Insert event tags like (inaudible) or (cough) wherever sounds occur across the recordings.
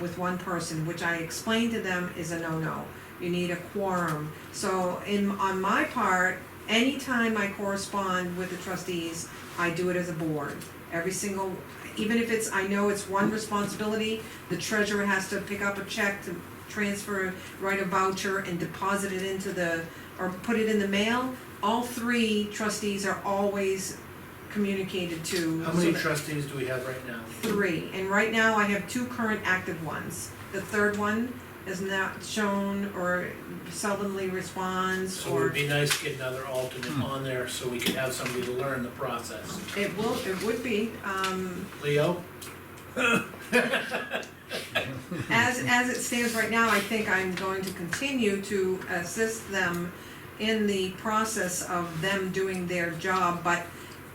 with one person, which I explained to them is a no-no. You need a quorum. So in, on my part, anytime I correspond with the trustees, I do it as a board. Every single, even if it's, I know it's one responsibility, the treasurer has to pick up a check to transfer, write a voucher and deposit it into the, or put it in the mail. All three trustees are always communicated to. How so many that- trustees do we have right now? three, and right now I have two current active ones. The third one is not shown or seldomly responds So it would or, be nice to get another alternate Hmm. on there so we could have somebody to learn the process. it will, it would be, (laughs) um, Leo? as, as it stands right now, I think I'm going to continue to assist them in the process of them doing their job, but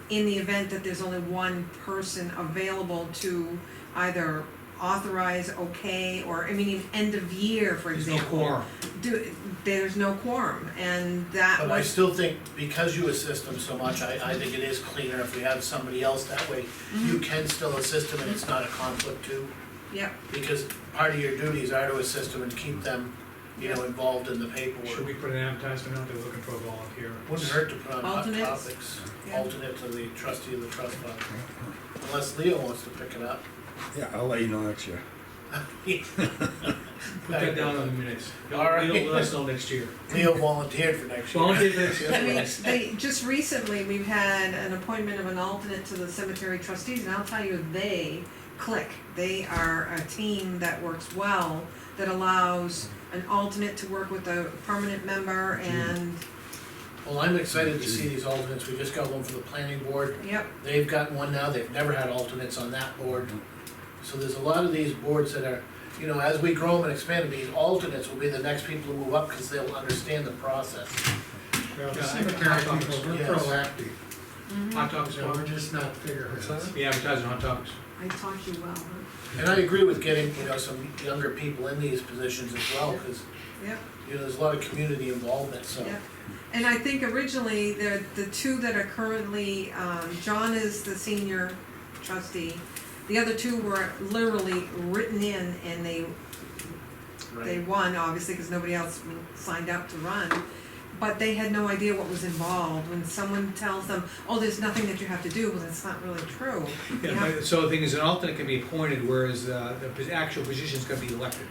in the event that there's only one person available to either authorize, okay, or, I mean, end of year, for There's no example. quorum. do, there's no quorum, and that But I was, still think, because you assist them so much, I, I think it is cleaner if we have somebody else that way. Mm-hmm. You can still assist them and it's not a conflict too, (laughs) yep, because part of your duties are to assist them and keep them, you know, involved in the Should paperwork. we put an advertisement out there looking for a volunteer? Wouldn't hurt to put on hot Alternates? topics, Yeah. alternate to the trustee of the trust fund. Unless Leo wants to pick it up. (laughs) Yeah, I'll let you know next year. Put that down on the minutes. They'll, All right. they'll let us know next (laughs) year. Leo volunteered for next year. Volunteer next I mean, year. they, just recently, we've had an appointment of an alternate to the cemetery trustees, and I'll tell you, they click. They are a team that works well, that allows an alternate to work with a permanent member, Mm-hmm. and, (laughs) Well, I'm excited to see these alternates, we just got one for the planning board, yep, they've got one now, they've never had alternates on that board. So there's a lot of these boards that are, you know, as we grow them and expand, these alternates will be the next people to move up, cause they'll understand the process. Well, the Yeah, I- cemetery I thought people, so, we're yes. proactive, Hot topics, so we're Bob. just not figureheads. We advertise on hot topics. I taught you well, huh? And I agree with getting, you know, some younger people in these positions as well, cause, yep. you know, there's a lot of community involvement, so. Yeah. And I think originally, the, the two that are currently, um, John is the senior trustee. The other two were literally written in and they, they Right. won, obviously, because nobody else signed up to run. But they had no idea what was involved. When someone tells them, oh, there's nothing that you have to do, well, that's not really true. (laughs) You Yeah, have- but- So the thing is, an alternate can be appointed, whereas uh, the pos- actual position's gonna be elected.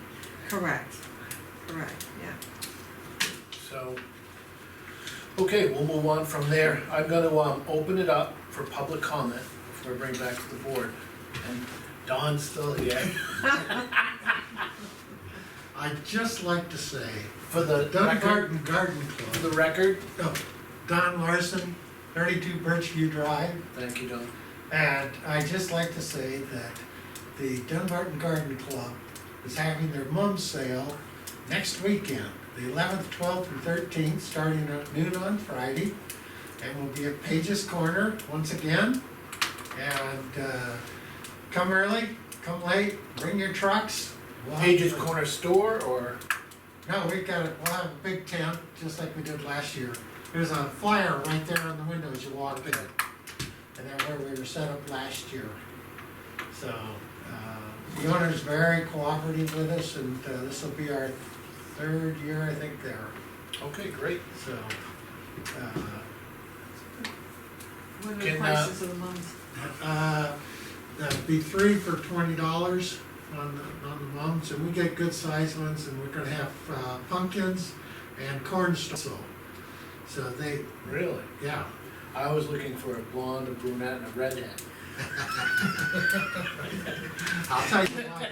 Correct, correct, yeah. So, okay, we'll move on from there. I'm gonna, um, open it up for public comment before I bring it back to the board. And Don's still here I'd just like to say, for the record, Dunbarton Garden for Club, the record. no, Don Larson, thirty-two Birchview Drive, Thank you, Don. and I'd just like to say that the Dunbarton Garden Club is having their mum sale next weekend, the eleventh, twelfth, and thirteenth, starting at noon on Friday. And we'll be at Page's Corner once again. And, uh, come early, come late, bring your trucks. We'll have- Page's Corner Store or, No, we've got, a- we'll have a big tent, just like we did last year. There's a flyer right there on the window as you walk in. And that's where we were set up last year. So, uh, the owner's very cooperative with us and uh, this will be our third year, I think, there, okay, great. so. uh, What are the Can, uh, prices of the mums? Uh, That'd be three for twenty dollars on the, on the mums, and we get good sized ones, and we're gonna have uh, pumpkins and corn stalks. So- So they, Really? yeah, I was looking for a blonde, a brunette and a redhead. I'll tell you what,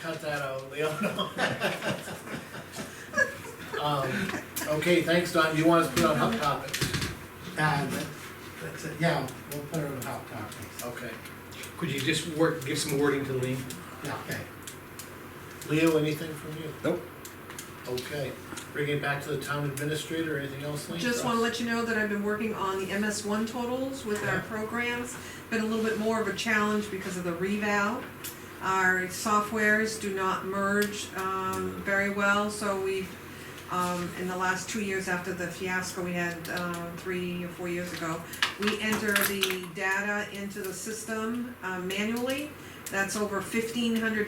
Cut that out, Leo. (laughs) Um, okay, thanks, Don. Do you want us to put on hot topics? uh, that- that's it, yeah, we'll put it on the hot topics, Okay. Could you just work, give some wording to Lean? yeah, okay. Leo, anything from you? Nope. Okay, bringing it back to the town administrator, anything else, Lean? Just wanna let you know that I've been working on the MS one totals with our programs. Been a little bit more of a challenge because of the revow. Our softwares do not merge, um, very well, so we've, um, in the last two years after the fiasco we had, um, three or four years ago, we enter the data into the system, um, uh, manually. That's over fifteen hundred